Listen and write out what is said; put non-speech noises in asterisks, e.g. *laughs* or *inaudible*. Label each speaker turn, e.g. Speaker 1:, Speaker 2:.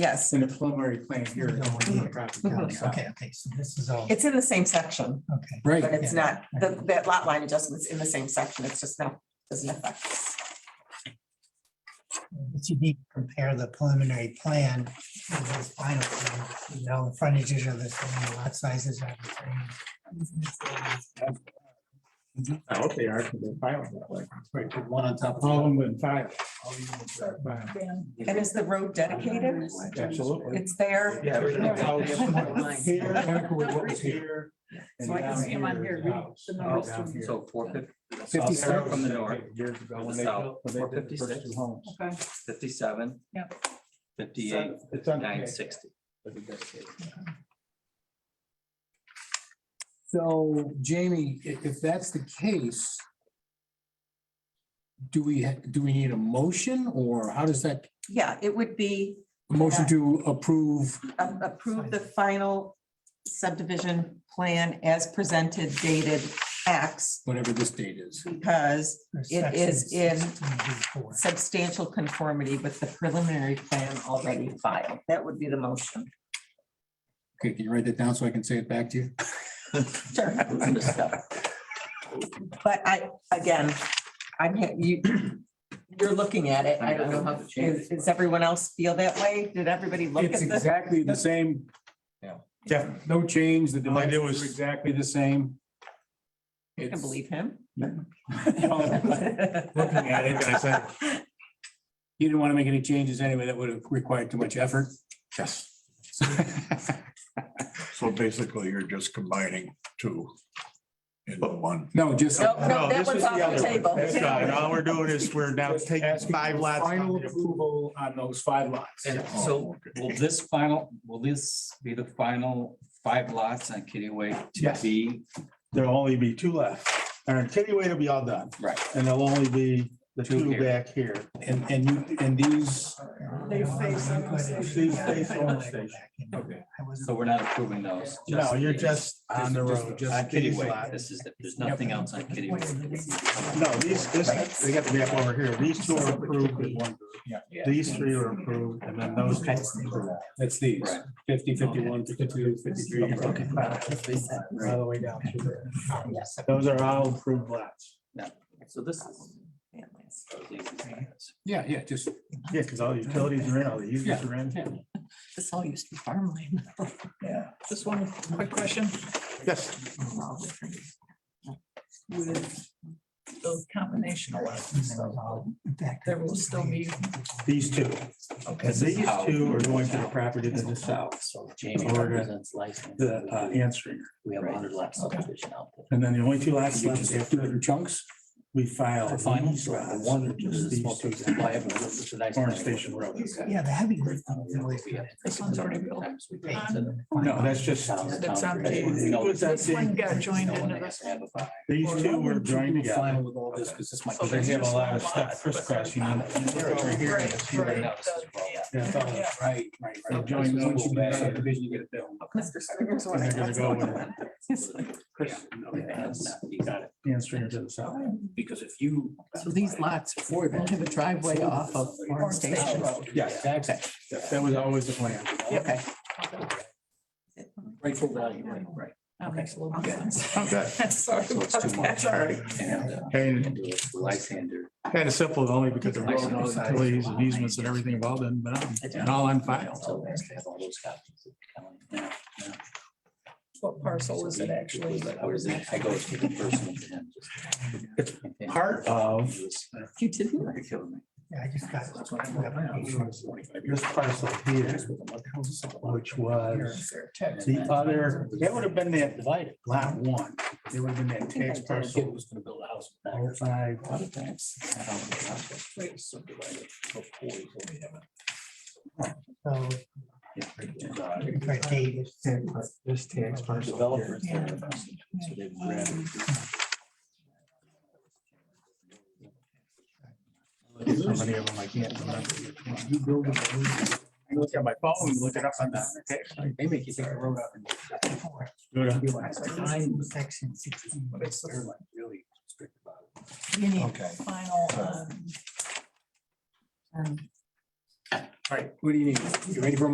Speaker 1: Yes,
Speaker 2: in a preliminary plan here. it's only for traffic counts.
Speaker 3: Okay, okay, so this is all,
Speaker 1: it's in the same section,
Speaker 3: okay.
Speaker 1: but
Speaker 2: Right,
Speaker 1: it's not, the, that lot line adjustment's in the same section, it's just not, doesn't affect. us.
Speaker 3: But you need to compare the preliminary plan with this final plan. You know, the frontages are the same, the lot sizes are the same.
Speaker 2: I hope they are, because they're filing that way. Right, put one on top. of All of them in five.
Speaker 1: And is the road dedicated?
Speaker 2: Absolutely.
Speaker 1: It's there,
Speaker 2: Yeah. there's no house Here, back where what was here.
Speaker 4: So I can see 'em on here, read the numbers to 'em.
Speaker 5: So four fifty,
Speaker 2: Oh, Fifty
Speaker 5: South
Speaker 2: seven
Speaker 5: from the north,
Speaker 2: Years ago.
Speaker 5: from
Speaker 2: when
Speaker 5: the
Speaker 2: they
Speaker 5: south,
Speaker 2: built- when they did the first
Speaker 5: 456.
Speaker 2: two homes.
Speaker 4: Okay,
Speaker 5: fifty-seven.
Speaker 4: Yep.
Speaker 5: Fifty-eight,
Speaker 2: It's on.
Speaker 5: nine sixty.
Speaker 2: So Jamie, i- if that's the case, do we, ha- do we need a motion or how does that,
Speaker 1: yeah, it would be
Speaker 2: a motion to approve?
Speaker 1: a- approve the final subdivision plan as presented dated X
Speaker 2: whatever this date is.
Speaker 1: because It is in-
Speaker 3: in.
Speaker 1: substantial conformity with the preliminary plan already filed. That would be the motion.
Speaker 2: Okay, can you write that down so I can say it back to you?
Speaker 1: Sure. But I, again, I'm, ha- you, you're looking at it. I don't know how, is- does everyone else feel that way? Did everybody look at
Speaker 2: It's
Speaker 1: this?
Speaker 2: exactly the same.
Speaker 5: Yeah.
Speaker 2: Yeah, no change. The
Speaker 6: Like it
Speaker 2: dimensions
Speaker 6: was-
Speaker 2: are exactly the same.
Speaker 1: I can
Speaker 2: It's-
Speaker 1: believe him.
Speaker 2: *laughs* You at it, I said- didn't want to make any changes anyway. That would have required too much effort.
Speaker 6: Yes.
Speaker 2: So-
Speaker 6: So basically, you're just combining two into one.
Speaker 2: No, just.
Speaker 1: Nope, no,
Speaker 6: No,
Speaker 1: that
Speaker 6: this
Speaker 1: one's
Speaker 6: is the
Speaker 1: off the
Speaker 6: other one.
Speaker 1: table.
Speaker 6: That's
Speaker 1: *laughs*
Speaker 6: right. All we're doing is we're now taking
Speaker 2: Asking
Speaker 6: five
Speaker 2: for
Speaker 6: lots.
Speaker 2: Final approval on those five lots.
Speaker 5: And
Speaker 6: Oh,
Speaker 5: so
Speaker 6: okay.
Speaker 5: will this final, will this be the final five lots on Kitty Way to
Speaker 6: Yes.
Speaker 5: be?
Speaker 6: There'll only be two left. Our kitty way will be all done.
Speaker 5: Right.
Speaker 6: And there'll only be the
Speaker 5: Two
Speaker 6: two
Speaker 5: here.
Speaker 6: back here.
Speaker 2: And, and you, and these,
Speaker 4: They face on the station.
Speaker 6: These face on the station.
Speaker 3: Okay. I wasn't.
Speaker 5: So we're not approving those.
Speaker 6: No, you're
Speaker 5: these.
Speaker 6: just on the
Speaker 5: Just-
Speaker 6: road.
Speaker 5: just
Speaker 6: on
Speaker 5: Kitty
Speaker 6: these
Speaker 5: Way.
Speaker 6: lots.
Speaker 5: This is, there's nothing else on Kitty Way.
Speaker 6: No, these, this, they got the map over here. These two are approved with one.
Speaker 5: Yeah.
Speaker 6: These three are approved and then those two. are approved.
Speaker 2: that's these,
Speaker 5: Right.
Speaker 2: fifty, fifty-one, fifty-two, fifty-three.
Speaker 6: Okay.
Speaker 2: All the way down. through there.
Speaker 3: Yes.
Speaker 6: Those are all approved lots.
Speaker 5: So this is.
Speaker 2: Yeah, yeah, just
Speaker 6: Yeah, because all the utilities are in, all the users are in.
Speaker 1: This all used to be farmland.
Speaker 4: Just one quick question
Speaker 6: Yes.
Speaker 4: with those combination lots. and stuff, There will still be,
Speaker 6: These two.
Speaker 3: Okay.
Speaker 6: And these two are going to the property to the south,
Speaker 7: So Jamie
Speaker 6: Florida,
Speaker 7: represents license.
Speaker 6: the uh, answering.
Speaker 7: We have a hundred lap subdivision out there.
Speaker 6: And then the only two lots
Speaker 2: You
Speaker 6: left
Speaker 2: just do it
Speaker 6: after
Speaker 2: in chunks.
Speaker 6: we file.
Speaker 7: For finals,
Speaker 6: these
Speaker 7: or
Speaker 6: lots,
Speaker 7: one or
Speaker 6: which
Speaker 7: two,
Speaker 6: is
Speaker 7: the
Speaker 6: these
Speaker 7: small
Speaker 6: two.
Speaker 7: two, liable, this is a nice
Speaker 6: Orange
Speaker 7: one.
Speaker 6: Station Road.
Speaker 3: Yeah, the heavy lifting is always.
Speaker 4: This one's already built.
Speaker 6: No, that's just-
Speaker 4: That's on this one got joined into this one.
Speaker 6: These two were joined
Speaker 2: We'll
Speaker 6: together.
Speaker 2: Final with all this, because this might.
Speaker 4: So
Speaker 2: be-
Speaker 6: They have a lot of stuff crisscrossing on.
Speaker 4: Right, right.
Speaker 6: They're
Speaker 2: Right, right, right.
Speaker 6: Join those.
Speaker 2: Once you get out of the vision, you get it built.
Speaker 1: Mr. Springer's one.
Speaker 6: gonna go with
Speaker 4: *laughs*
Speaker 5: Got it.
Speaker 6: the answering to the south.
Speaker 5: Because if you.
Speaker 7: So these lots, four of them have a driveway off of Orange Station Road.
Speaker 6: Yes,
Speaker 7: Exactly.
Speaker 6: that was always the plan.
Speaker 7: Okay.
Speaker 5: Rightful value, right, right.
Speaker 4: That makes a little more sense.
Speaker 1: *laughs*
Speaker 6: Okay.
Speaker 4: Sorry
Speaker 5: So it's too
Speaker 4: about
Speaker 5: much.
Speaker 4: that.
Speaker 5: And, uh,
Speaker 6: And
Speaker 5: and do it for Lysander.
Speaker 6: kind of simple, only because the road and all the utilities and easements and everything have all been, but and all on file.
Speaker 7: So they have all those copies. of the county. Now,
Speaker 4: What parcel is it actually?
Speaker 7: I was in- I go to the person. to him, just-
Speaker 6: Part of
Speaker 4: You didn't?
Speaker 5: You're killing me.
Speaker 3: Yeah, I just got.
Speaker 6: this parcel here, which was the other, that would have been that
Speaker 7: Divided.
Speaker 6: lot one. It would have been that tax
Speaker 7: Kid
Speaker 6: parcel.
Speaker 7: was gonna build a house. back.
Speaker 6: Oh, five.
Speaker 7: Subdivided.
Speaker 3: So. For Davis.
Speaker 6: This tax parcel. here.
Speaker 7: Developers. there. So they've
Speaker 4: um,
Speaker 7: grabbed it.
Speaker 6: So many of them I can't remember. You build them. I Look at my phone, look it up on that.
Speaker 7: They make you think the road up and.
Speaker 3: Section sixteen.
Speaker 7: But it's sort of like really strict about it.
Speaker 4: You need
Speaker 6: Okay.
Speaker 4: final, um,
Speaker 1: um,
Speaker 2: All right, what do you need? You ready for a